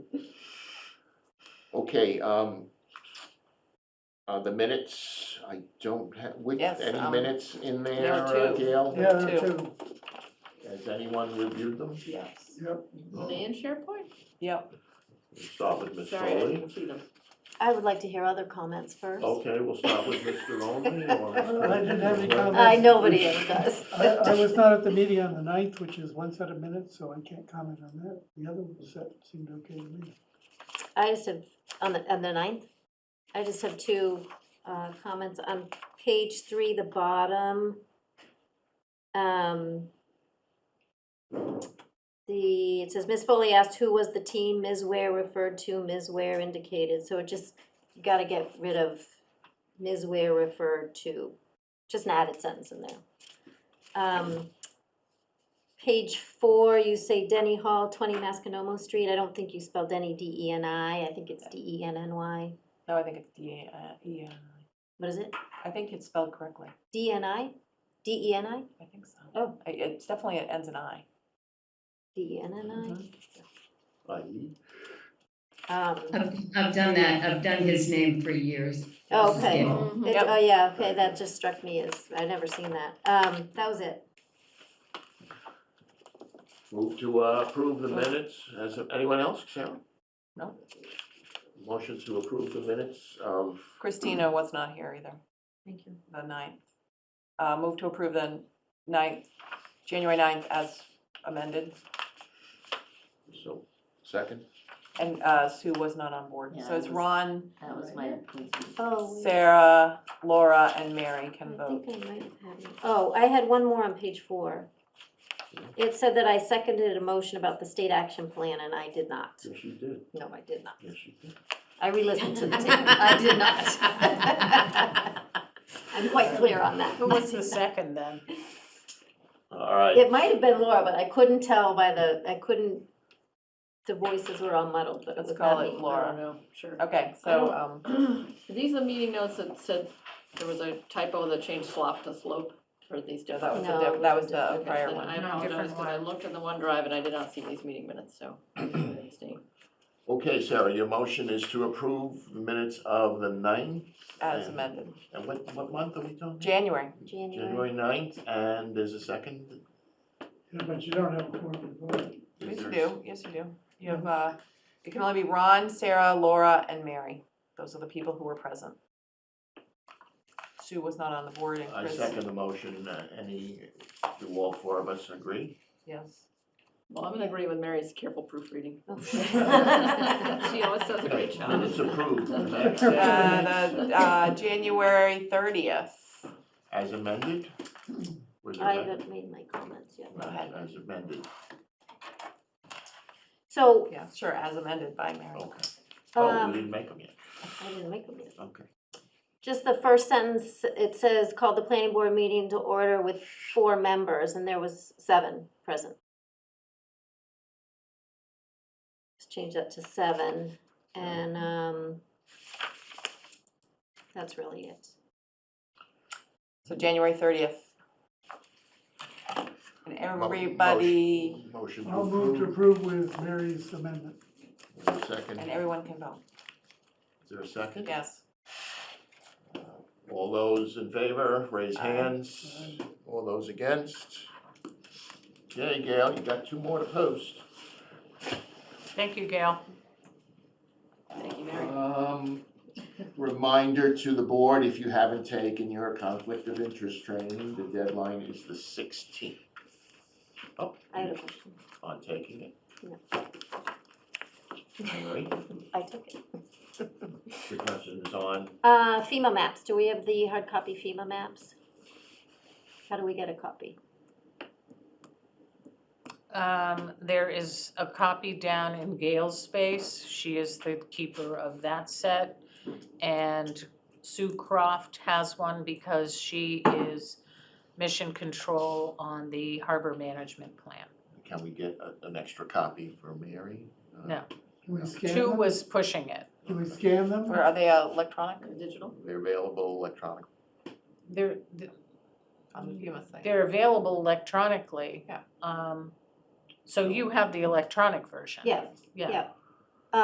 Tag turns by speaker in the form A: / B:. A: Okay, um, uh, the minutes, I don't have, which,
B: Yes,
A: any
B: um,
A: minutes in there,
B: there are
A: uh,
B: two.
A: Gail?
C: Yeah, there are
B: Two.
C: two,
A: Has anyone reviewed them?
D: Yes.
C: yep.
D: And SharePoint?
B: Yep,
A: We'll Start with Ms.
D: Sorry, I
A: Foley.
D: didn't see them.
E: I would like to hear other comments first.
A: Okay, we'll start with Mr. Only or?
C: I didn't have any comments.
E: I, Uh, nobody ever does.
C: I, I was not at the meeting on the ninth, which is one set of minutes, so I can't comment on that. The other set seemed okay to me.
E: I just have, on the, on the ninth, I just have two, uh, comments on page three, the bottom. Um, the, it says, Ms. Foley asked who was the team, Ms. Ware referred to, Ms. Ware indicated, so it just, you gotta get rid of Ms. Ware referred to, just an added sentence in there. Um, Page four, you say Denny Hall, twenty Masconomo Street, I don't think you spelled Denny D E N I, I think it's D E N N Y,
B: no, I think it's D, uh, E, N I.
E: what is it?
B: I think it's spelled correctly,
E: D E N I? D E N I?
B: I think so.
E: Oh.
B: I- It's definitely, it ends in I.
E: D E N N
B: Mhm.
A: I-
E: I? Um,
F: I've, I've done that, I've done his name for years.
E: oh, okay,
F: Yeah.
G: Mm-hmm.
D: Mhm.
E: It-
B: Yep.
E: oh yeah, okay, that just struck me as, I'd never seen that, um, that was it.
A: Move to uh, approve the minutes. Has anyone else, Sharon?
B: No.
A: Motion to approve the minutes of,
B: Christina was not here either,
D: Thank you.
B: the ninth. Uh, move to approve the ninth, January ninth as amended,
A: so, second?
B: and, uh, Sue was not on board.
D: Yeah,
B: So
D: I
B: it's
D: was-
B: Ron,
D: That was my appointment.
E: Oh, wait,
B: Sarah, Laura, and Mary
E: I
B: can vote.
E: think I might have had, it. oh, I had one more on page four. It said that I seconded a motion about the state action plan and I did not,
A: Yes, you did.
E: no, I did not.
A: Yes, you did.
E: I re-listened to the tape. I did not. I'm quite clear on that.
G: Who was the second then?
A: All right.
E: It might have been Laura, but I couldn't tell by the, I couldn't, the voices were all muddled, but it
B: Let's
E: was
B: call
E: not
B: it
E: me.
D: I
B: Laura.
D: don't know, sure.
B: Okay, so, um,
D: These are meeting notes that said there was a typo that changed slop to slope, or these
B: no, that
D: don't.
B: was the,
E: No,
B: diff- that was
E: it was
B: the
D: Okay,
B: prior
D: then
B: one.
D: I
G: No,
D: apologize,
G: different
D: because I
G: one.
D: looked in the OneDrive and I did not see these meeting minutes, so. I made a mistake.
A: Okay, Sarah, your motion is to approve the minutes of the ninth?
B: As
A: and-
B: amended,
A: And what, what month are we talking?
B: January.
E: January.
A: January ninth, and there's a second?
C: Yeah, but you don't have a quorum to vote.
A: Is
B: Yes, you
A: there-
B: do, yes, you do. You have, uh, it can only be Ron, Sarah, Laura, and Mary. Those are the people who were present. Sue was not on the board and
A: I
B: Chris,
A: second the motion, Uh, any, do all four of us agree?
B: yes.
D: Well, I'm gonna agree with Mary's careful proofreading. She
E: Okay.
D: always does a great job.
A: Minutes approved,
B: Uh, the, uh, January thirtieth.
A: as amended? Was it
E: I
A: amended?
E: haven't made my comments yet.
A: Right, As amended,
E: So,
B: Yeah, sure, as amended by Mary.
A: okay. Oh, we
E: um,
A: didn't make them yet,
E: I didn't make them yet.
A: okay.
E: Just the first sentence, it says, called the planning board meeting to order with four members, and there was seven present. Let's change that to seven, and, um, that's really it.
B: So January thirtieth. And
A: Mo-
B: everybody,
A: Motion
C: I'll move to
A: motion to
C: approve with Mary's amendment.
A: approve, second,
B: and
A: is
B: everyone can vote,
A: there a second?
B: yes.
A: All those in favor, raise
B: Aye.
A: hands, all those against? Okay, Gail, you got two more to post.
G: Thank you, Gail.
D: Thank you, Mary.
A: Um, reminder to the board, if you haven't taken your conflict of interest training, the deadline is the sixteenth. Oh,
E: I have a question.
A: on taking it.
E: No.
A: All right,
E: I took it.
A: the question is on,
E: Uh, FEMA maps, do we have the hard copy FEMA maps? How do we get a copy?
G: Um, there is a copy down in Gail's space. She is the keeper of that set. And Sue Croft has one because she is mission control on the harbor management plan.
A: can we get a, an extra copy for Mary? Uh,
G: No.
C: Can we scan
G: Two
C: them?
G: was pushing it.
C: Can we scan them?
B: Or are they uh, electronic
D: Digital?
A: They're available electronically.
G: They're,
B: on the FEMA site?
G: they're available electronically.
B: Yeah.
G: Um, so you have the electronic version.
E: Yeah,
G: Yeah.
E: yeah.